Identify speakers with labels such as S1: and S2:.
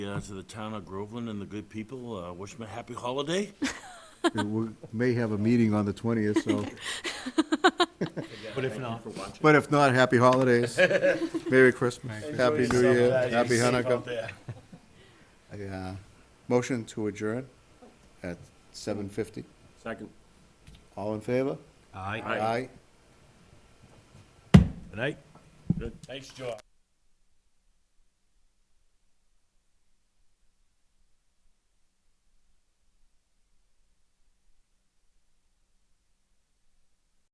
S1: uh, to the town of Groveland and the good people, uh, wish them a happy holiday.
S2: We may have a meeting on the 20th, so,
S3: But if not,
S2: but if not, happy holidays. Merry Christmas, Happy New Year, Happy Hanukkah. Yeah. Motion to adjourn at 7:50.
S1: Second.
S2: All in favor?
S3: aye.
S1: Aye.
S2: Aye.
S3: Good night.
S1: Good, thanks, George.